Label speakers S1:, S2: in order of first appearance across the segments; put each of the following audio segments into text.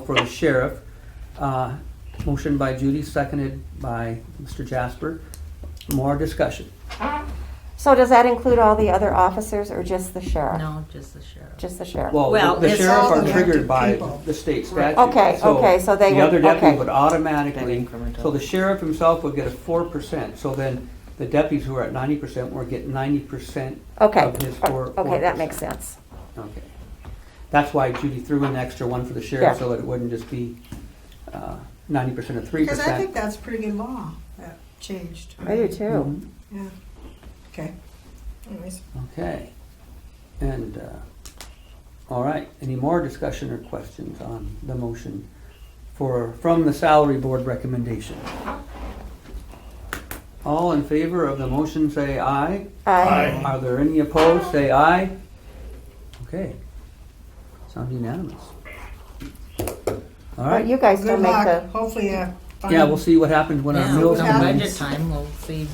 S1: for the sheriff. Uh, Motion by Judy, seconded by Mr. Jasper. More discussion.
S2: So does that include all the other officers or just the sheriff?
S3: No, just the sheriff.
S2: Just the sheriff?
S1: Well,
S3: Well,
S1: the- the
S3: it's
S1: sheriff
S4: all
S1: are
S4: the
S1: triggered
S4: active
S1: by
S4: people.
S1: the state statute.
S2: Okay, okay, so they
S1: The
S2: would-
S1: other deputy
S2: okay.
S1: would automatically,
S3: That incremental.
S1: so the sheriff himself would get a four percent. So then the deputies who are at ninety percent would get ninety percent
S2: Okay, Oh,
S1: of his uh, four.
S2: okay, that
S1: 4%.
S2: makes sense.
S1: Okay. That's why Judy threw in an extra one for the
S2: Yeah.
S1: sheriff, so that it wouldn't just be uh, ninety percent of three
S4: Because I think
S1: percent.
S4: that's a pretty good law that changed.
S2: I do
S1: Mm-hmm.
S2: too.
S4: Yeah. Okay. Anyways,
S1: Okay. And, uh, all right, any more discussion or questions on the motion for, from the salary board recommendation? All in favor of the motion, say aye.
S2: Aye.
S1: Are there any opposed? Say aye. Okay. Sounds unanimous. All
S2: Well,
S1: right.
S2: You guys
S4: good
S2: don't make
S4: luck.
S2: the,
S4: Hopefully, uh.
S1: Yeah, we'll see what happens when our
S3: Yeah,
S1: meals
S4: what
S3: come
S1: come in.
S3: budget time, we'll see.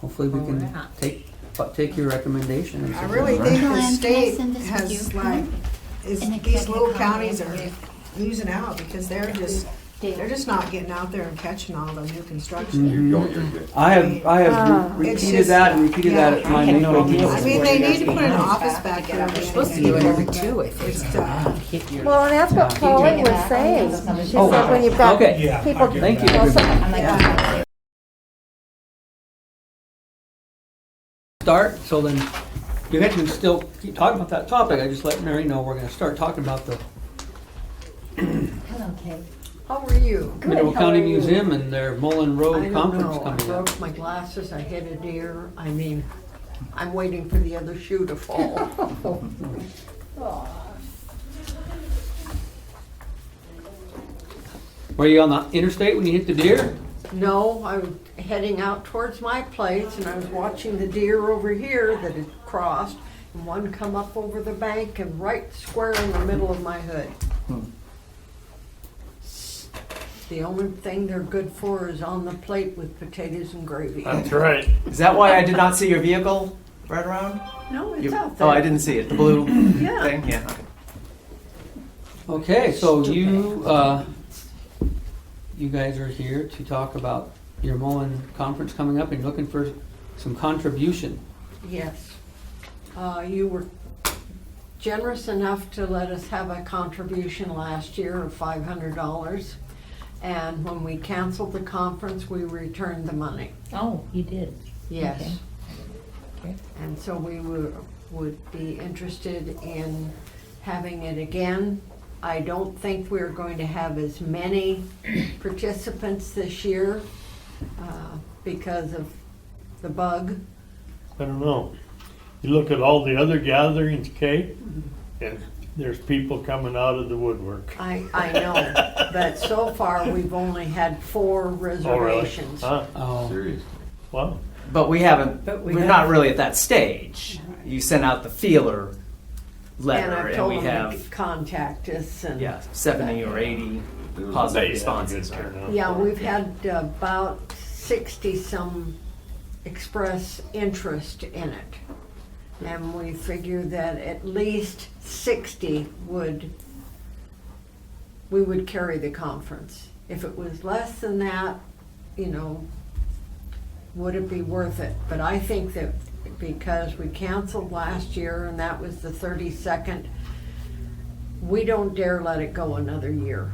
S1: Hopefully, we
S3: Where
S1: can
S3: we're at.
S1: take, but take your recommendation. and
S4: I
S1: see
S4: really
S1: what-
S4: think the
S5: Joanne, can I
S4: state
S5: send this with
S4: has
S5: you?
S4: like, is,
S5: An
S4: these little
S5: executive copy
S4: counties
S5: of
S4: are
S5: your
S4: losing out because they're just,
S5: deal.
S4: they're just not getting out there and catching all the new construction.
S6: You don't, you're good.
S1: I have, I have
S2: Ah.
S1: re-
S4: It's
S1: repeated
S4: just-
S1: that and repeated that at my
S7: I had no
S1: NACO
S7: idea.
S2: Mm-hmm.
S1: meeting.
S4: I mean, they need to put an
S7: Yeah.
S4: office back there.
S7: You're
S3: Supposed to do it every two, I
S4: It's,
S3: think.
S4: uh,
S7: Hit your.
S2: well, and that's what
S1: Yeah.
S2: Colleen
S5: Take it
S2: was
S5: back.
S2: saying.
S5: Oh,
S2: She said when you've got
S1: Okay.
S2: people.
S1: Yeah, Thank
S2: Thank
S1: you, everybody.
S5: I'm like,
S1: Start, so then, you guys can still keep talking about that topic, I just let Mary know we're gonna start talking about the
S5: hello, Kate.
S8: How are you?
S1: Mineral County
S8: how are you?
S1: Museum and their Mullen
S8: I
S1: Road
S8: don't
S1: Oh, Conference
S8: know. I
S1: coming up.
S8: broke my glasses, I hit a deer. I mean, I'm waiting for the other shoe to fall.
S1: Were you on the interstate when you hit the deer?
S8: No, I was heading out towards my place and I was watching the deer over here that had crossed. And one come up over the bank and right square in the middle of my hood. The only thing they're good for is on the plate with potatoes and gravy.
S9: Oh.
S6: right.
S9: Is that why I did not see your vehicle right around?
S8: No, it's
S9: You-
S8: out there.
S9: oh, I didn't see it. The blue
S8: Yeah.
S9: thing? Yeah. Okay.
S1: Okay, so you, uh, you guys are here to talk about your Mullen Conference coming up and looking for some contribution.
S8: Yes. Uh, You were generous enough to let us have a contribution last year of $500. And when we canceled the conference, we returned the money.
S3: Oh, you did.
S8: Yes.
S3: Okay.
S8: And so we were- would be interested in having it again. I don't think we're going to have as many participants this year uh, because of the bug.
S10: I don't know. You look at all the other gatherings, Kate, and there's people coming out of the woodwork.
S8: I, I know, but so far, we've only had four
S10: Oh, really?
S8: reservations.
S10: Huh?
S1: Oh,
S6: Serious.
S10: Wow.
S9: But we haven't.
S3: But we
S9: we are
S3: have-
S9: not really at that stage. You sent out the feeler
S8: And
S9: letter,
S8: I've
S9: and,
S8: told
S9: we
S8: them
S9: have
S8: to contact us and.
S9: yeah seventy or eighty
S6: There was
S9: positive
S10: They had a good
S9: responses.
S10: turnout.
S8: Yeah, we've had about sixty-some express interest in it. And we figure that at least sixty would, we would carry the conference. If it was less than that, you know, would it be worth it? But I think that because we canceled last year and that was the thirty-second, we don't dare let it go another year.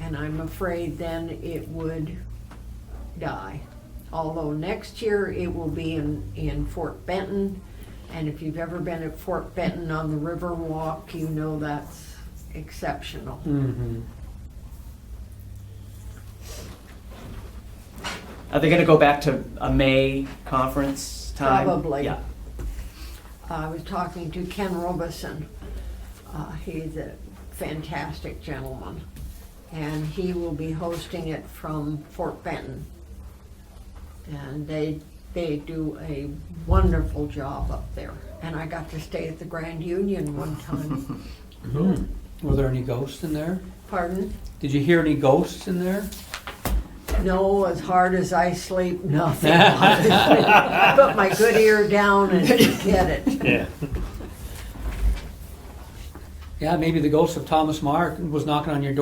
S8: And I'm afraid then it would die. Although next year it will be in, in Fort Benton. And if you've ever been at Fort Benton on the River Walk, you know that's exceptional.
S1: mhm.
S9: Are they going to go back to a May conference time?
S8: Probably.
S9: Yeah.
S8: Uh, I was talking to Ken Robeson. Uh, he's a fantastic gentleman. And he will be hosting it from Fort Benton. And they, they do a wonderful job up there. And I got to stay at the Grand Union one time.
S1: Were there any ghosts in there?
S8: Pardon?
S1: Did you hear any ghosts in there?
S8: No, as hard as I sleep, nothing. I Put my good ear down and get it.
S10: Yeah.
S1: Yeah, maybe the ghost of Thomas Marr was knocking on your door.